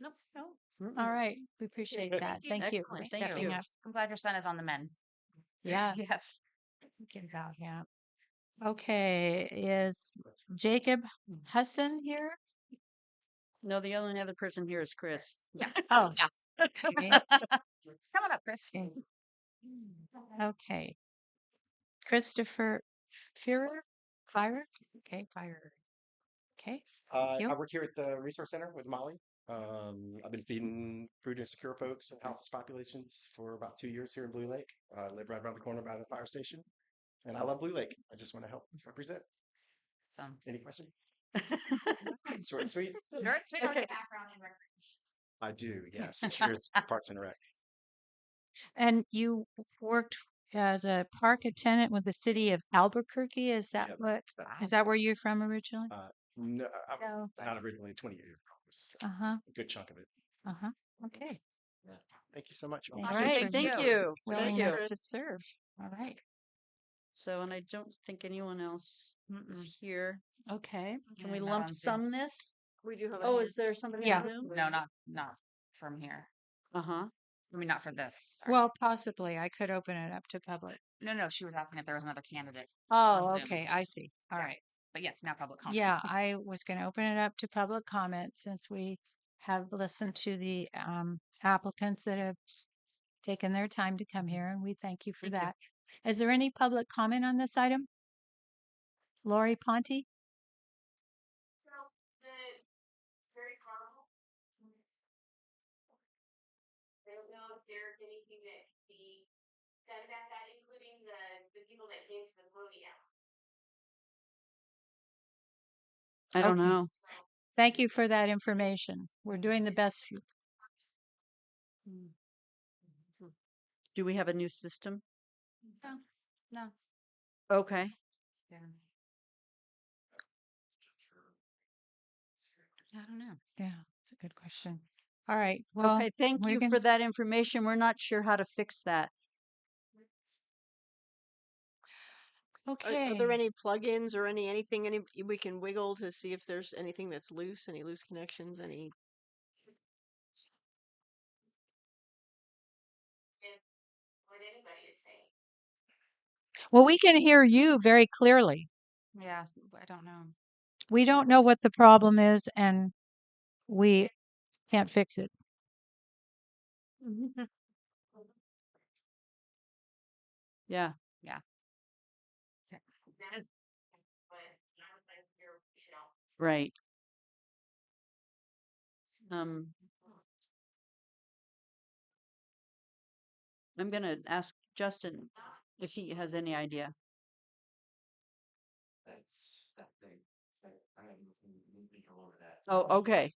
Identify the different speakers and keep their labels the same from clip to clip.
Speaker 1: Nope. Nope.
Speaker 2: All right, we appreciate
Speaker 3: Thank
Speaker 2: that.
Speaker 1: you.
Speaker 2: Mm. Thank you
Speaker 1: Excellent.
Speaker 2: for
Speaker 1: Thank
Speaker 2: stepping
Speaker 1: you.
Speaker 2: up.
Speaker 1: I'm glad your son is on the men.
Speaker 2: Yeah.
Speaker 1: Yes.
Speaker 2: Good job, yeah. Okay, is Jacob Husson here?
Speaker 3: No, the only other person here is Chris.
Speaker 2: Oh. okay.
Speaker 1: Come on up, Chris.
Speaker 2: Okay. mm, Okay. Christopher Fuhrer, Fire, okay, Fire. Okay,
Speaker 4: Uh,
Speaker 2: you.
Speaker 4: I work here at the Resource Center with Molly. Um, I've been feeding food insecure folks and houseless populations for about two years here in Blue Lake. Uh, I live right around the corner by the fire station, and I love Blue Lake. I just want to help represent.
Speaker 1: So.
Speaker 4: Any questions? Short and sweet.
Speaker 1: Sure, it's been on
Speaker 3: Okay.
Speaker 1: the background and record.
Speaker 4: I do. Yes. Cheers, Parks and Rec.
Speaker 2: and you worked as a park attendant with the city of Albuquerque, is that
Speaker 4: Yep. Uh,
Speaker 2: what, is that where you're from originally?
Speaker 4: No, I was
Speaker 2: No.
Speaker 4: not originally twenty years. ago, so
Speaker 2: Uh-huh,
Speaker 4: A good chunk of it.
Speaker 2: uh-huh, okay.
Speaker 4: Thank you so much.
Speaker 2: All
Speaker 4: Awesome.
Speaker 2: right,
Speaker 3: Okay,
Speaker 2: Thank
Speaker 3: thank
Speaker 1: you.
Speaker 3: you. Thank you.
Speaker 2: Willingness to serve, all right,
Speaker 3: So, and I don't think anyone else
Speaker 1: Mm-mm.
Speaker 3: is here.
Speaker 2: okay.
Speaker 1: Mm.
Speaker 3: Can
Speaker 1: Yeah,
Speaker 3: we
Speaker 1: not on
Speaker 3: lump
Speaker 1: Zoom.
Speaker 3: sum this?
Speaker 5: We do have.
Speaker 3: Oh, is there somebody?
Speaker 2: Yeah.
Speaker 1: No, not, not from here.
Speaker 3: Uh huh.
Speaker 1: I mean, not for this. Sorry.
Speaker 2: Well, possibly, I could open it up to public.
Speaker 1: No, no, she was asking if there was another candidate,
Speaker 2: Oh,
Speaker 1: On Zoom.
Speaker 2: okay, I see, all
Speaker 1: Yeah.
Speaker 2: right.
Speaker 1: but yes, now public comment.
Speaker 2: Yeah, I was going to open it up to public comment since we have listened to the um, applicants that have taken their time to come here, and we thank you for
Speaker 3: Thank you.
Speaker 2: that. Is there any public comment on this item? Lori Ponte?
Speaker 5: So the very carnival. I don't know if there's anything that can be done about that, including the, the people that came to the podium.
Speaker 3: I don't
Speaker 2: Okay.
Speaker 3: know.
Speaker 2: Thank you for that information. We're doing the best. you-
Speaker 3: Do we have a new system?
Speaker 1: No.
Speaker 3: Okay.
Speaker 1: Yeah. I don't know.
Speaker 2: Yeah, it's a good question. All right. Well,
Speaker 3: Okay, thank
Speaker 2: we're
Speaker 3: you
Speaker 2: gonna-
Speaker 3: for that information. We're not sure how to fix that.
Speaker 2: okay.
Speaker 5: Are, are there any plugins or any, anything, any, we can wiggle to see if there's anything that's loose, any loose connections, any?
Speaker 6: what anybody is saying.
Speaker 2: Well, we can hear you very clearly.
Speaker 1: Yeah, s- I don't know.
Speaker 2: We don't know what the problem is, and we can't fix it. Mm-hmm.
Speaker 3: Yeah.
Speaker 6: That's what I was like, you're, you know,
Speaker 3: Right. Um. I'm gonna ask Justin if he has any idea.
Speaker 4: That's that thing. I am moving all over that.
Speaker 3: Oh, okay.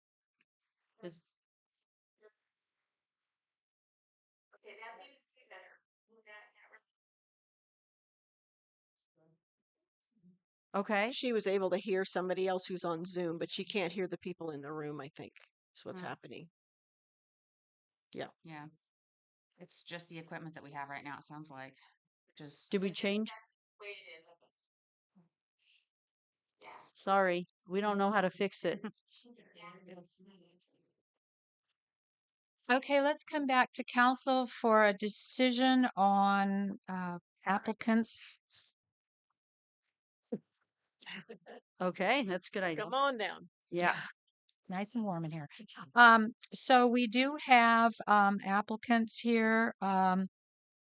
Speaker 3: Is,
Speaker 6: okay, that needs to be better. Move that, that right
Speaker 3: okay.
Speaker 5: She was able to hear somebody else who's on Zoom, but she can't hear the people in the room, I think, is what's
Speaker 1: Mm.
Speaker 5: happening.
Speaker 1: Yeah. It's just the equipment that we have right now, it sounds like. Just,
Speaker 3: Did we change?
Speaker 6: way it is. Yeah.
Speaker 3: Sorry, we don't know how to fix it.
Speaker 2: Okay, let's come back to council for a decision on uh, applicants.
Speaker 3: Okay, that's a good idea.
Speaker 5: Come on down.
Speaker 3: Yeah.
Speaker 2: Nice and warm in here. Um, so we do have um, applicants here, um,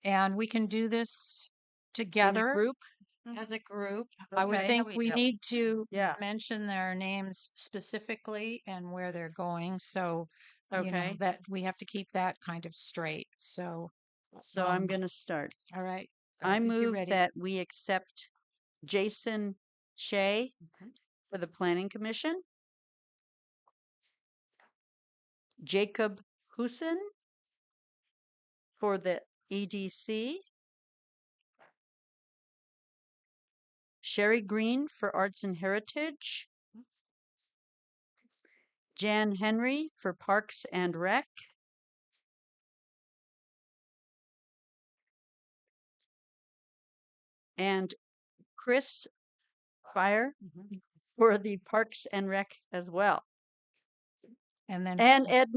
Speaker 2: and we can do this
Speaker 3: In a
Speaker 2: together
Speaker 3: Group?
Speaker 2: as a group. I would
Speaker 3: Okay.
Speaker 2: think
Speaker 1: we
Speaker 2: we
Speaker 1: do.
Speaker 2: need to
Speaker 3: Yeah.
Speaker 2: mention their names specifically and where they're going. So you know
Speaker 3: Okay.
Speaker 2: that we have to keep that kind of straight. So
Speaker 3: So I'm
Speaker 2: um,
Speaker 3: gonna start.
Speaker 2: all right,
Speaker 3: I
Speaker 2: think you're
Speaker 3: move
Speaker 2: ready.
Speaker 3: that we accept Jason Shea
Speaker 1: Okay.
Speaker 3: for the planning commission. Jacob Husin for the E EDC. Sherry Green for Arts and Heritage. Jan Henry for Parks and Rec. And Chris Fire
Speaker 1: Mhm.
Speaker 3: for the Parks and Rec as well.
Speaker 2: and then
Speaker 3: And Ed